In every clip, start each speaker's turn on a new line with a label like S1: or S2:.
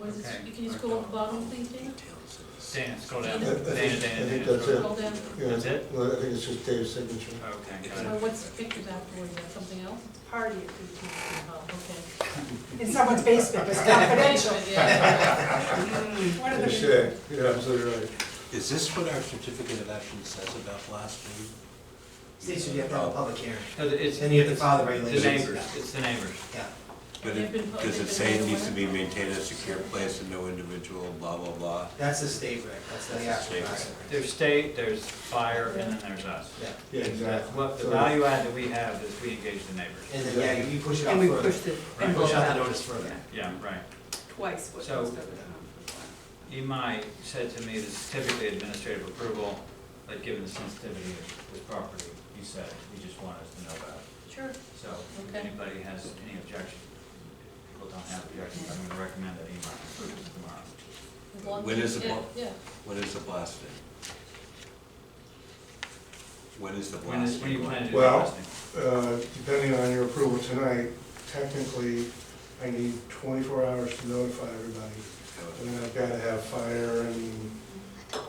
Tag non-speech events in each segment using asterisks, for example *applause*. S1: Was it,
S2: Okay.
S1: you can you scroll up the bottom, please, Dana?
S2: Dana, scroll down.
S1: I- I
S2: Dana,
S1: think-
S2: Dana,
S3: I
S2: Dana.
S3: think that's
S2: scroll down.
S3: it.
S1: Scroll down.
S3: Yeah,
S2: That's it?
S3: Well, I think it's just Dave's signature.
S2: Okay, got
S1: Well,
S2: it.
S1: what's pictured afterwards, Is that something else?
S4: party at fifteen.
S1: Oh, okay.
S4: In someone's basement, it's confidential.
S1: *laughs* Yeah.
S4: One of
S3: You
S4: the-
S3: should, you're absolutely right.
S5: Is this what our certificate of action says about Oh, blasphemy?
S6: States should be a public hearing.
S2: No, the- It's,
S6: Then you have to file the
S2: the
S6: regulations.
S2: neighbors, it's the neighbors.
S6: Yeah.
S5: But
S1: They've been
S5: it,
S1: put-
S5: does
S1: they've
S5: it
S1: been
S5: say it
S1: put
S5: needs
S1: away.
S5: to be maintained in a secure place and no individual, blah, blah, blah?
S6: That's the state reg, that's the
S5: That's the
S6: actual
S5: state
S6: master.
S2: There's state, there's fire, and then there's us.
S6: Yeah,
S3: Yeah, exactly.
S2: What, the
S3: So-
S2: value add that we have is we engage the neighbors.
S6: and then, yeah, you- you push it out
S7: And we
S6: further.
S7: pushed it.
S6: You push out the notice further.
S2: Yeah, right.
S7: Twice what
S2: So-
S7: most of it.
S2: Imai said to me, this is typically administrative approval, but given the sensitivity of this property, he said, he just wanted us to know about it.
S1: Sure,
S2: So if
S1: Okay.
S2: anybody has any objection, people don't have objections, I'm gonna recommend that E Imai approves it tomorrow.
S1: as long as.
S5: When is
S1: you-
S5: the
S1: yeah,
S5: ball-
S1: Yeah,
S5: When is the blasting? When is the
S2: When is, when you
S5: blasting?
S2: plan to do the
S3: Well-
S2: listing?
S3: Uh, Depending on your approval tonight, technically, I need 24 hours to notify everybody. And then I've got to have fire and, um,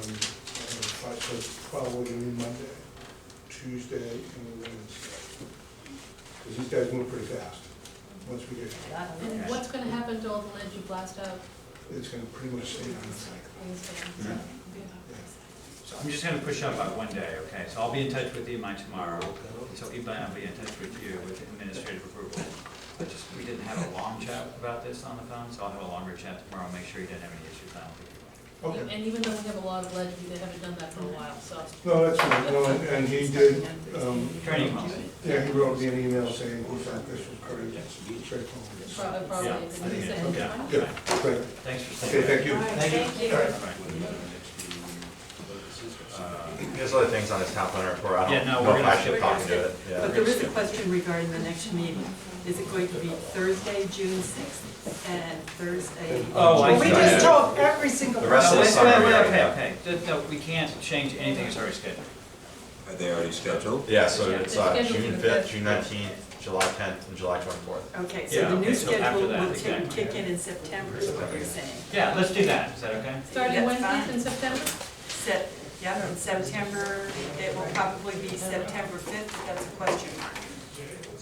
S3: uh, fi- so probably gonna be Monday, Tuesday, and Wednesday. Because these guys move pretty fast, once we get,
S1: and what's gonna happen to all the lead you blast out?
S3: it's gonna pretty much stay on the
S1: Wednesday?
S2: So I'm just gonna push up by one day, okay? So I'll be in touch with Imai tomorrow. So Imai, I'll be in touch with you with administrative approval. I just, we didn't have a long chat about this on the phone, so I'll have a longer chat tomorrow, make sure you didn't have any issues, I don't think you
S3: Okay.
S1: And even though we have a lot of lead, they haven't done that for a while, so.
S3: No, that's right, no, and- and he did, um,
S2: will. Training miles.
S3: yeah, he wrote me an email saying, in fact, this was pretty straightforward.
S1: Prob- Probably,
S2: Yeah, I
S1: because
S2: think
S1: he
S2: it-
S1: said-
S2: yeah.
S3: Good, great,
S2: Thanks for staying.
S3: okay, thank you.
S6: Thank you.
S8: There's other things on this town planner report, I
S2: Uh, Yeah,
S8: don't
S2: no,
S8: know
S2: we're
S8: if
S2: gonna-
S8: I should copy to it, yeah.
S7: But there is a question regarding the next meeting. Is it going to be Thursday, June sixth, and Thursday?
S2: Oh, I
S4: Well,
S2: see.
S4: we just told every single
S8: The
S2: No,
S8: rest of
S4: person.
S8: the
S2: wait,
S8: summer,
S2: wait, wait,
S8: yeah, yeah.
S2: Okay, okay, Th- no, we can't change anything, it's already scheduled.
S5: Are they already scheduled?
S8: Yeah, so it's uh,
S1: It's scheduled for
S8: June
S1: the
S8: fifth,
S1: fifth.
S8: June nineteenth, July tenth, and July twenty-fourth.
S7: Okay,
S2: Yeah,
S7: so the
S2: okay,
S7: new
S2: so after
S7: schedule
S2: that,
S7: will take,
S2: exactly.
S7: kick in in September, is what you're saying.
S2: Yeah, let's do that, is that okay?
S1: Starting
S7: That's
S1: Wednesdays
S7: fine.
S1: in September?
S7: Set, yeah, in September, it will probably be September fifth, that's a question mark.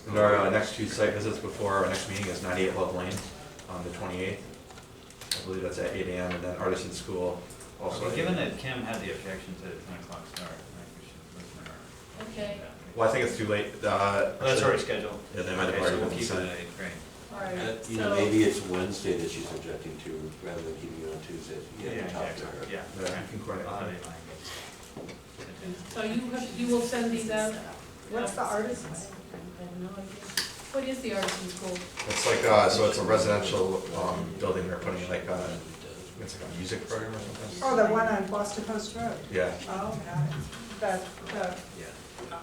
S8: And our uh, next two site visits before our next meeting is ninety-eight Love Lane on the twenty-eighth. I believe that's at eight AM, and then Artisan School
S2: Okay,
S8: also. at
S2: Given
S8: 8.
S2: that Kim had the objection to the ten o'clock start, I think we should listen to her.
S1: Okay,
S8: Well, I think it's too late, uh.
S2: Well, Oh, That's
S8: actually-
S2: already scheduled.
S8: Yeah, they might have
S2: Okay, so
S8: already
S2: we'll
S8: been
S2: keep it
S8: sent.
S2: at eight, great.
S1: all right.
S5: Uh, You know,
S1: So-
S5: maybe it's Wednesday that she's objecting to, rather than keeping it on Tuesday. You have to talk to her.
S2: Yeah,
S8: Yeah,
S2: okay.
S8: you can coordinate
S2: I'll have
S8: that.
S2: it in mind, but-
S1: So you have, you will send these out?
S4: What's the artisan?
S1: I have no idea. What is the artisan school?
S8: It's like, uh, so it's a residential, um, building they're putting like, uh, it's like a music program or something.
S4: Oh, the one on Boston Post Road.
S8: Yeah.
S4: Oh, got it. The, the,
S2: Yeah.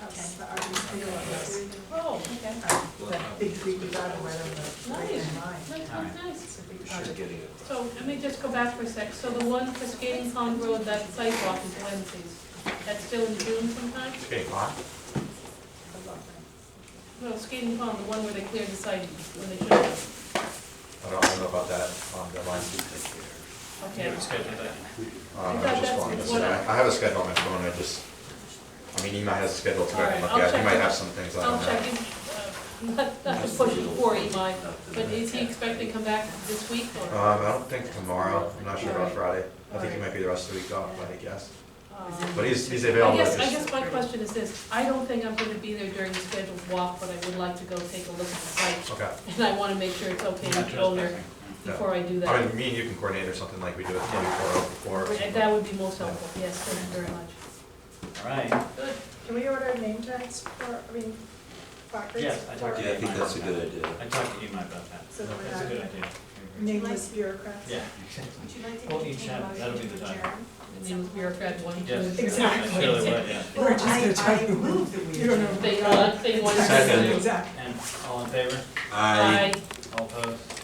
S4: that's the artisan.
S1: Oh, okay.
S4: That big creek we got away from.
S1: Nice.
S4: Mine.
S1: That sounds nice.
S4: It's a big
S5: Sure,
S4: project.
S5: getting it.
S1: So let me just go back for a sec. So the one for Skating Pond Road, that sidewalk is Wednesdays. That's still in June sometime?
S8: Okay, Ron?
S1: No, Skating Pond, the one where they cleared the site when they should have.
S8: I don't, I don't know about that, um, deadline.
S2: You
S1: Okay.
S2: would schedule that.
S8: Um,
S1: I
S8: I
S1: thought
S8: just
S1: that's
S8: wanted to
S1: what
S8: say,
S1: I-
S8: I have a schedule on my phone, I just, I mean, Ema has a schedule to
S1: All
S8: I
S1: right,
S8: can look
S1: I'll
S8: at,
S1: check
S8: he might
S1: it.
S8: have some things, I
S1: I'll
S8: don't know.
S1: check in, uh, *laughs* not, not to push it for Eli, but is he expected to come back this week or?
S8: Um, I don't think tomorrow, I'm not sure about Friday, I think he
S1: Alright.
S8: might be the rest of the week off, I guess,
S1: um,
S8: but he's, he's
S1: I
S8: available,
S1: guess, I
S8: just-
S1: guess my question is this, I don't think I'm gonna be there during the scheduled walk, but I would like to go take a look at the site.
S8: okay.
S1: And I wanna make sure it's okay
S2: Not
S1: with the owner
S2: trespassing.
S8: Yeah.
S1: before I do
S8: I
S1: that.
S8: mean, me and you can coordinate or something like we do with Kim before, before.
S1: And That would be most helpful, yes, thank you very much.
S2: All right,
S1: Good,
S4: Can we order name tags for, I mean, placards?
S2: Yes, I talked
S4: for
S2: to
S5: Yeah, I think that's a good idea.
S2: I talked to Imai about that.
S4: So we're
S2: That's a
S4: not-
S2: good idea.
S4: Nameless bureaucrats?
S2: Yeah.
S7: Would you like
S2: to Well, each entertain a have- motion that'll be the to time. adjourn?
S1: name of bureaucrat one, two,
S2: Yes.
S1: three.
S4: Exactly.
S2: I surely would, yeah.
S4: We're just gonna
S7: I,
S4: talk-
S7: I move that we.
S4: You don't know.
S1: They, uh, they want.
S5: Second.
S4: Exactly.
S2: And all in favor?
S5: I
S1: Aye.
S2: All opposed?